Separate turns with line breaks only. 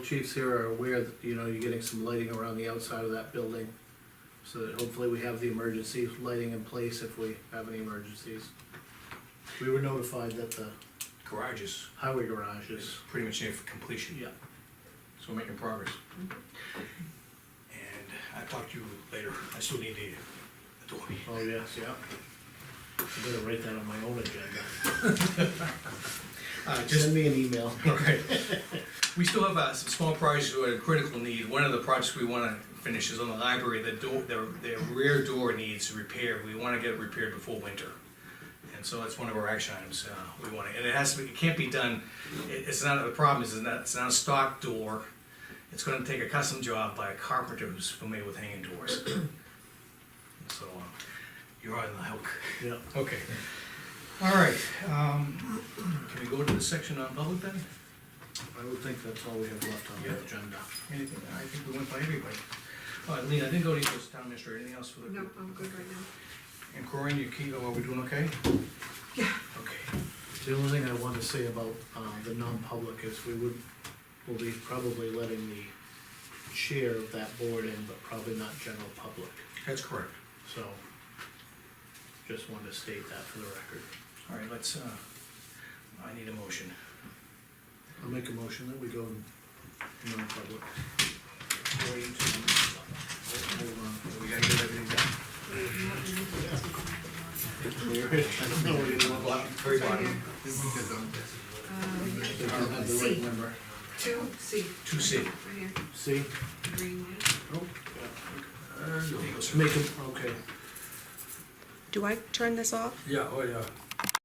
Chiefs here are aware that, you know, you're getting some lighting around the outside of that building. So that hopefully we have the emergency lighting in place if we have any emergencies. We were notified that the
Garage is
highway garage is,
pretty much near for completion.
yeah, Mm-hmm.
So we're making progress. And I talk to you later, I still need the, the door.
oh yes, yeah. I better write that on my own agenda.
Uh, just,
Send me an email.
alright. We still have, uh, some small projects that are in critical need, one of the projects we wanna finish is on the library, the door, their, their rear door needs repair, we wanna get it repaired before winter. And so that's one of our action items, uh, we wanna, and it has to, be it can't be done, it, it's not, the problem is, it's not, it's not a stock door. It's gonna take a custom job by a carpenter who's familiar with hanging doors. So, uh, you're on the hook.
Yeah,
Okay. All right, um, can we go to the section on public then?
I would think that's all we have left on
Yeah.
the agenda.
Anything, I think we went by everybody. Uh, Lean, I didn't go to you as town administrator, anything else for the?
No, I'm good right now.
And Corinne, you keep, are we doing okay?
Yeah.
Okay,
The only thing I wanted to say about, uh, the non-public is we would, will be probably letting the chair of that board in, but probably not general public,
that's correct.
so. Just wanted to state that for the record.
All right, let's, uh, I need a motion.
I'll make a motion that we go non-public.
Cory, to-
Hold on.
uh, We gotta get everything done.
No, we didn't want
Bottom, Very bottom,
to have the right
C,
number.
Uh, two, C,
two C.
right here,
See?
green,
Oh.
There you go, sir.
Make a, okay.
Do I turn this off?
Yeah, oh yeah.